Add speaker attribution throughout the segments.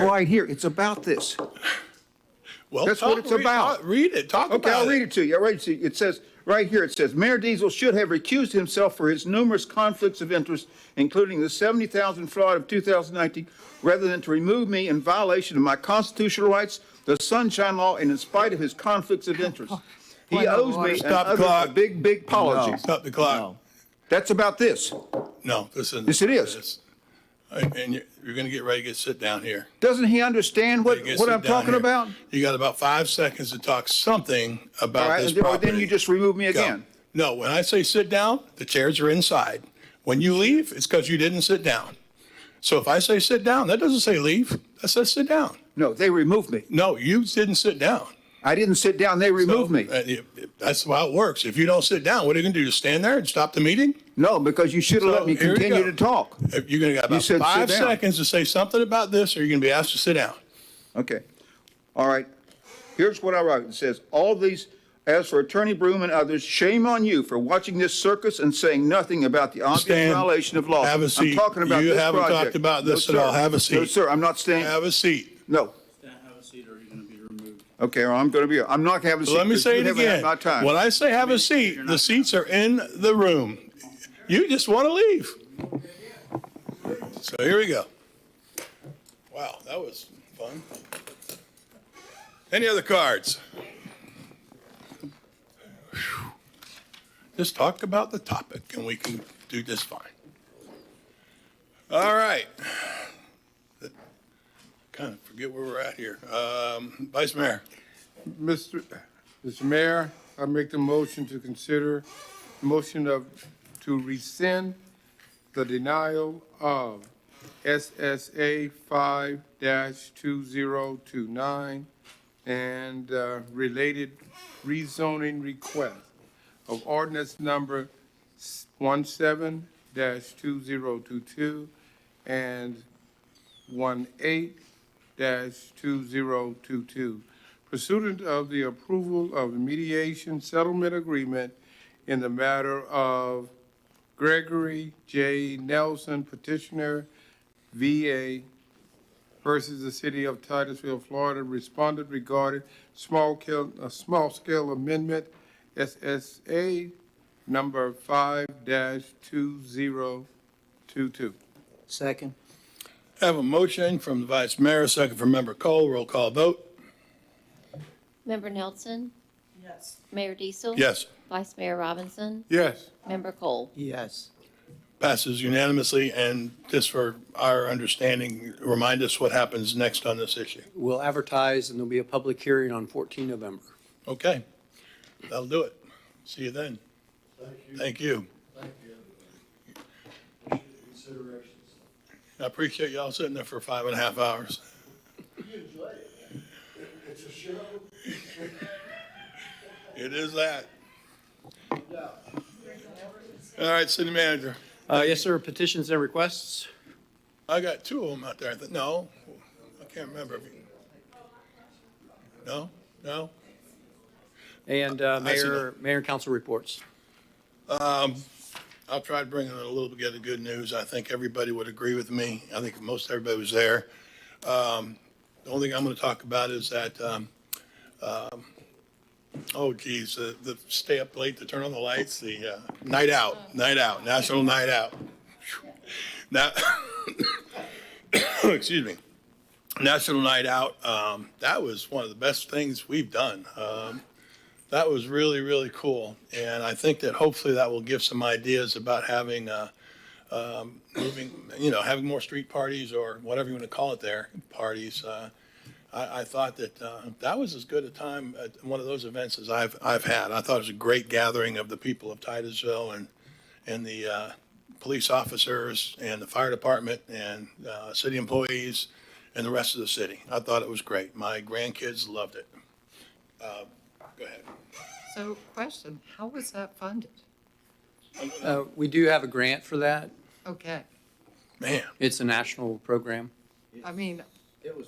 Speaker 1: right here. It's about this.
Speaker 2: Well,
Speaker 1: That's what
Speaker 2: talk-
Speaker 1: it's
Speaker 2: read-
Speaker 1: about.
Speaker 2: uh, Read it, talk
Speaker 1: Okay,
Speaker 2: about
Speaker 1: I'll read
Speaker 2: it.
Speaker 1: it to you. All right, see, it says, right here, it says, Mayor Diesel should have recused himself for his numerous conflicts of interest, including the 70,000 fraud of 2019, rather than to remove me in violation of my constitutional rights, the Sunshine Law, and in spite of his conflicts of interest. He
Speaker 3: Point of
Speaker 1: owes
Speaker 3: order.
Speaker 1: me and
Speaker 2: Stop the
Speaker 1: others a
Speaker 2: clock.
Speaker 1: big, big apology.
Speaker 2: Stop the clock.
Speaker 1: That's about this.
Speaker 2: No, this isn't.
Speaker 1: Yes, it is.
Speaker 2: this. And and you're, you're gonna get ready to get sit down here.
Speaker 1: Doesn't he understand what,
Speaker 2: You get
Speaker 1: what
Speaker 2: sit
Speaker 1: I'm
Speaker 2: down
Speaker 1: talking
Speaker 2: here.
Speaker 1: about?
Speaker 2: You got about five seconds to talk something
Speaker 1: All
Speaker 2: about
Speaker 1: right,
Speaker 2: this
Speaker 1: well,
Speaker 2: property.
Speaker 1: then you just remove me
Speaker 2: Go.
Speaker 1: again.
Speaker 2: No, when I say sit down, the chairs are inside. When you leave, it's because you didn't sit down. So if I say sit down, that doesn't say leave. That says sit down.
Speaker 1: No, they removed me.
Speaker 2: No, you didn't sit down.
Speaker 1: I didn't sit down, they removed me.
Speaker 2: Uh, it- it- That's how it works. If you don't sit down, what are you gonna do? Just stand there and stop the meeting?
Speaker 1: No, because you should have let
Speaker 2: So
Speaker 1: me
Speaker 2: here you
Speaker 1: continue
Speaker 2: go.
Speaker 1: to talk.
Speaker 2: If You're gonna got about
Speaker 1: said sit
Speaker 2: five
Speaker 1: down.
Speaker 2: seconds to say something about this, or you're gonna be asked to sit down.
Speaker 1: Okay. All right. Here's what I wrote. It says, all these, as for Attorney Broom and others, shame on you for watching this circus and saying nothing about the obvious
Speaker 2: Stand.
Speaker 1: violation of law.
Speaker 2: Have a
Speaker 1: I'm
Speaker 2: seat.
Speaker 1: talking about
Speaker 2: You
Speaker 1: this
Speaker 2: haven't talked
Speaker 1: project.
Speaker 2: about this
Speaker 1: No,
Speaker 2: at all.
Speaker 1: sir.
Speaker 2: Have a
Speaker 1: No,
Speaker 2: seat.
Speaker 1: sir, I'm not staying.
Speaker 2: Have a seat.
Speaker 1: No.
Speaker 4: Can't have a seat or you're gonna be removed.
Speaker 1: Okay, well, I'm going to be, I'm not having a seat.
Speaker 2: Let me
Speaker 1: because
Speaker 2: say
Speaker 1: you
Speaker 2: it
Speaker 1: haven't had
Speaker 2: again.
Speaker 1: My time.
Speaker 2: When I say have a seat, the seats are in the room. You just want to leave. So here we go. Wow, that was fun. Any other cards? Whew. Just talk about the topic and we can do this fine. All right. Kind of forget where we're at here. Um, Vice Mayor.
Speaker 5: Mr. Mr. Mayor, I make the motion to consider, motion of, to rescind the denial of SSA five two zero two nine and uh, related rezoning request of ordinance number one two zero two two and one eight 2022 pursuant of the approval of mediation settlement agreement in the matter of Gregory J. Nelson petitioner VA versus the City of Titusville, Florida, responded regarding small scale, a small scale amendment SSA number 5-2022.
Speaker 3: Second.
Speaker 2: I Have a motion from the Vice Mayor, a second from Member Cole. Roll call vote.
Speaker 6: Member Nelson?
Speaker 4: Yes.
Speaker 6: Mayor Diesel?
Speaker 2: Yes.
Speaker 6: Vice Mayor Robinson?
Speaker 5: Yes.
Speaker 6: Member Cole?
Speaker 3: Yes.
Speaker 2: Passes unanimously, and just for our understanding, remind us what happens next on this issue.
Speaker 7: We'll advertise and there'll be a public hearing on 14 November.
Speaker 2: Okay, that'll do it. See you then. Thank you. I appreciate y'all sitting there for five and a half hours. You enjoy it. It's a show. It is that. All right, City Manager.
Speaker 7: Uh, Yes, sir, petitions and requests.
Speaker 2: I got two of them out there. I think, no, I can't remember. No, no?
Speaker 7: And uh,
Speaker 2: I see
Speaker 7: mayor, mayor and council reports.
Speaker 2: I'll try to bring in a little bit of good news. I think everybody would agree with me. I think most everybody was there. Um, The only thing I'm going to talk about is that, um, um, oh geez, the, the stay up late to turn on the lights, the uh, night out, night out, national night out. Now, excuse me, national night out, um, that was one of the best things we've done. Um, that was really, really cool. And I think that hopefully that will give some ideas about having, uh, um, moving, you know, having more street parties or whatever you want to call it there, parties. Uh, I, I thought that, uh, that was as good a time at one of those events as I've, I've had. I thought it was a great gathering of the people of Titusville and, and the, uh, police officers and the fire department and, uh, city employees and the rest of the city. I thought it was great. My grandkids loved it. Uh, go ahead.
Speaker 8: So question, how was that funded?
Speaker 7: Uh, We do have a grant for that.
Speaker 8: Okay,
Speaker 2: Man,
Speaker 7: It's a national program.
Speaker 8: I mean,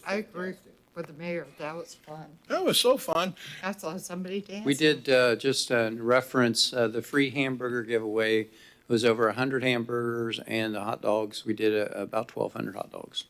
Speaker 8: I agree with the mayor, that was fun.
Speaker 2: that was so fun.
Speaker 8: I saw somebody dancing.
Speaker 7: We did, uh, just uh, in reference, uh, the free hamburger giveaway It was over 100 hamburgers and the hot dogs, we did uh, about 1,200 hot dogs.